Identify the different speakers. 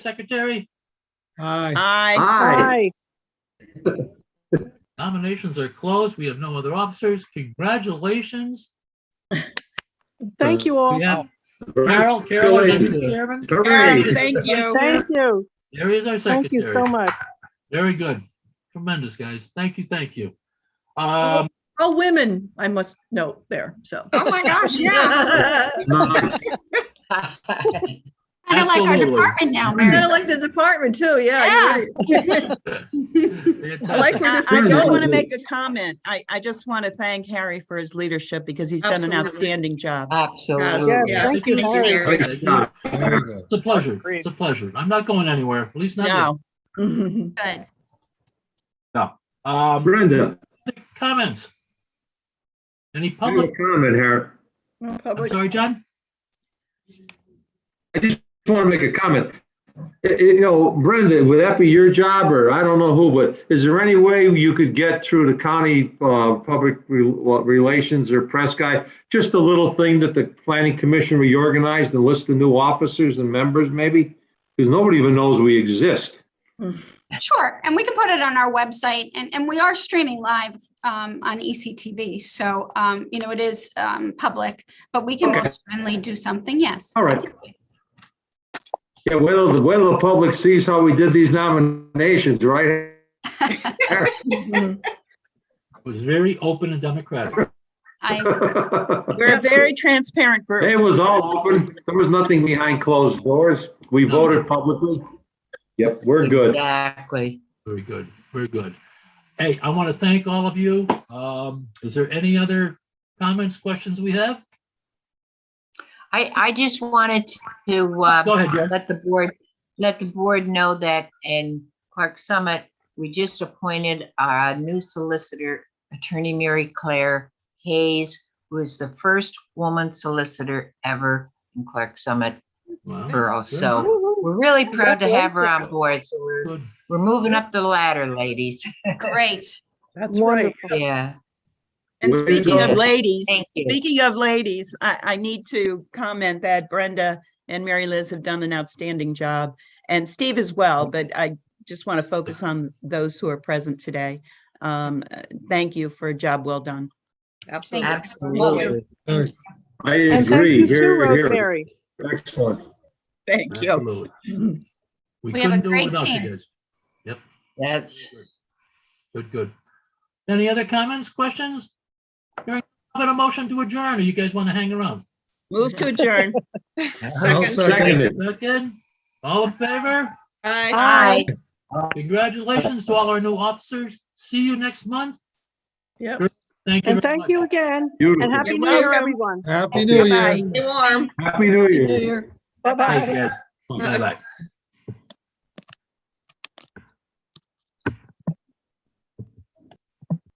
Speaker 1: Secretary,
Speaker 2: Aye,
Speaker 3: Aye.
Speaker 4: Aye.
Speaker 5: Aye.
Speaker 1: nominations are closed. We have no other officers. Congratulations.
Speaker 5: Thank you all.
Speaker 1: We have
Speaker 5: oh.
Speaker 1: Carol, Carol is our new chairman.
Speaker 3: Carol,
Speaker 4: Hooray.
Speaker 3: thank you.
Speaker 5: Thank you.
Speaker 1: There is our
Speaker 5: Thank you so
Speaker 1: secretary.
Speaker 5: much.
Speaker 1: Very good. Tremendous, guys. Thank you, thank you. Um,
Speaker 6: All women, I must note there, so.
Speaker 3: Oh, my gosh, yeah.
Speaker 4: Nice.
Speaker 7: Kind of like our
Speaker 1: Absolutely.
Speaker 7: department now,
Speaker 6: Kind
Speaker 7: Mary.
Speaker 6: of like the department too, yeah.
Speaker 7: Yeah.
Speaker 6: you're right. I like
Speaker 1: fantastic.
Speaker 6: where
Speaker 3: I
Speaker 6: this
Speaker 3: I
Speaker 6: is
Speaker 3: just want
Speaker 6: going.
Speaker 3: to make a comment. I, I just want to thank Harry for his leadership because he's done an
Speaker 8: Absolutely.
Speaker 3: outstanding job.
Speaker 8: Absolutely.
Speaker 5: Yes,
Speaker 3: Yes.
Speaker 5: thank you, Harry.
Speaker 4: Great job.
Speaker 2: very good.
Speaker 1: It's a pleasure.
Speaker 5: Agreed.
Speaker 1: It's a pleasure. I'm not going anywhere, at least not yet.
Speaker 3: No,
Speaker 6: Mhm.
Speaker 7: Good.
Speaker 1: Um,
Speaker 4: Brenda,
Speaker 1: comments? Any
Speaker 4: public
Speaker 1: public?
Speaker 4: comment here.
Speaker 6: No
Speaker 1: I'm
Speaker 6: public-
Speaker 1: sorry, John?
Speaker 4: I just want to make a comment. I- I- You know, Brenda, would that be your job or I don't know who, but is there any way you could get through the county uh, public re- what, relations or press guy? Just a little thing that the planning commission reorganized and list the new officers and members maybe? Because nobody even knows we exist.
Speaker 7: Sure. And we can put it on our website and, and we are streaming live um, on ECTV. So, um, you know, it is um, public, but we can
Speaker 4: Okay.
Speaker 7: most certainly do something. Yes.
Speaker 4: All right. Yeah, whether, the- whether the public sees how we did these nominations, right?
Speaker 6: Mhm.
Speaker 1: It Was very open and democratic.
Speaker 7: I,
Speaker 4: It
Speaker 3: we're a very transparent group.
Speaker 4: was all open. There was nothing behind closed doors. We voted publicly. Yep, we're good.
Speaker 8: Exactly.
Speaker 1: Very good, very good. Hey, I want to thank all of you. Um, is there any other comments, questions we have?
Speaker 8: I, I just wanted to, uh,
Speaker 1: Go ahead, Jen.
Speaker 8: let the board, let the board know that in Clark Summit, we just appointed our new solicitor, Attorney Mary Claire Hayes, who is the first woman solicitor ever in Clark Summit
Speaker 1: Wow,
Speaker 8: Borough.
Speaker 1: good,
Speaker 8: So we're really proud to have her on board. So we're,
Speaker 1: good.
Speaker 8: we're moving up the ladder, ladies.
Speaker 7: great.
Speaker 6: That's right.
Speaker 5: Wonderful.
Speaker 8: Yeah.
Speaker 3: And
Speaker 4: Way to
Speaker 3: speaking
Speaker 4: go.
Speaker 3: of ladies,
Speaker 8: Thank you.
Speaker 3: speaking of ladies, I, I need to comment that Brenda and Mary Liz have done an outstanding job and Steve as well, but I just want to focus on those who are present today. Um, uh, thank you for a job well done.
Speaker 7: Absolutely.
Speaker 8: Absolutely.
Speaker 2: Very-
Speaker 4: I
Speaker 5: And thank you
Speaker 4: agree.
Speaker 5: too,
Speaker 4: Here, here.
Speaker 5: Rosemary.
Speaker 4: Excellent.
Speaker 3: Thank you.
Speaker 1: Absolutely.
Speaker 6: Mhm.
Speaker 1: We
Speaker 7: We have a
Speaker 1: couldn't do it
Speaker 7: great
Speaker 1: without
Speaker 7: team.
Speaker 1: you guys.
Speaker 8: That's,
Speaker 1: Good, good. Any other comments, questions? Hearing none, a motion to adjourn, or you guys want to hang around?
Speaker 3: Move to adjourn.
Speaker 2: I'll second.
Speaker 4: Seconded.
Speaker 1: That good? All in favor?
Speaker 8: aye.
Speaker 1: Congratulations to all our new officers. See you next month.
Speaker 6: Yep.
Speaker 1: Thank you. very
Speaker 5: And thank
Speaker 1: much.
Speaker 5: you again. And
Speaker 4: Beautiful.
Speaker 5: happy
Speaker 3: You're
Speaker 5: new year,
Speaker 3: welcome.
Speaker 5: everyone.
Speaker 2: Happy New Year.
Speaker 3: Bye-bye.
Speaker 4: Happy New Year.
Speaker 5: Bye-bye.
Speaker 1: Thank you, guys. Bye-bye.